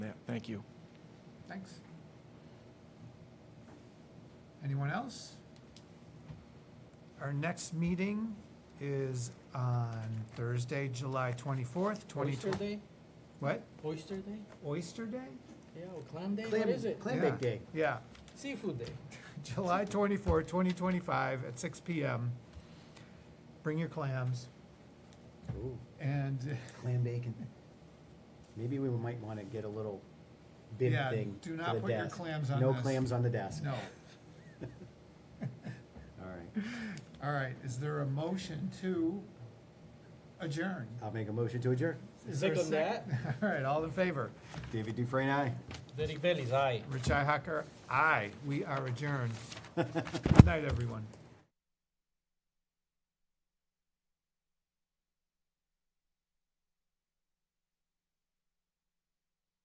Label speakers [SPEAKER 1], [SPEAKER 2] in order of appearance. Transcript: [SPEAKER 1] Thank you.
[SPEAKER 2] Thanks. Anyone else? Our next meeting is on Thursday, July 24th, 2020.
[SPEAKER 3] Oyster Day?
[SPEAKER 2] What?
[SPEAKER 3] Oyster Day?
[SPEAKER 2] Oyster Day?
[SPEAKER 3] Yeah, or clam day?
[SPEAKER 4] Clam-
[SPEAKER 3] What is it?
[SPEAKER 4] clam- Land
[SPEAKER 2] Yeah.
[SPEAKER 4] Bank Day.
[SPEAKER 2] Yeah,
[SPEAKER 3] Seafood Day.
[SPEAKER 2] July 24th, 2025 at 6 PM. Bring your clams
[SPEAKER 4] Ooh,
[SPEAKER 2] and,
[SPEAKER 4] clam bacon. Maybe we might want to get a little bib
[SPEAKER 2] Yeah,
[SPEAKER 4] thing
[SPEAKER 2] do
[SPEAKER 4] for
[SPEAKER 2] not
[SPEAKER 4] the
[SPEAKER 2] put your
[SPEAKER 4] desk.
[SPEAKER 2] clams on
[SPEAKER 4] No
[SPEAKER 2] this.
[SPEAKER 4] clams on the desk.
[SPEAKER 2] no.
[SPEAKER 4] All right.
[SPEAKER 2] All right, is there a motion to adjourn?
[SPEAKER 4] I'll make a motion to adjourn.
[SPEAKER 2] Is there a
[SPEAKER 3] Second
[SPEAKER 2] sec- All right, all in favor?
[SPEAKER 4] David Dufresne, aye.
[SPEAKER 3] Derek Bailey's aye.
[SPEAKER 2] Richi Hacker, aye. We are adjourned. Good night, everyone.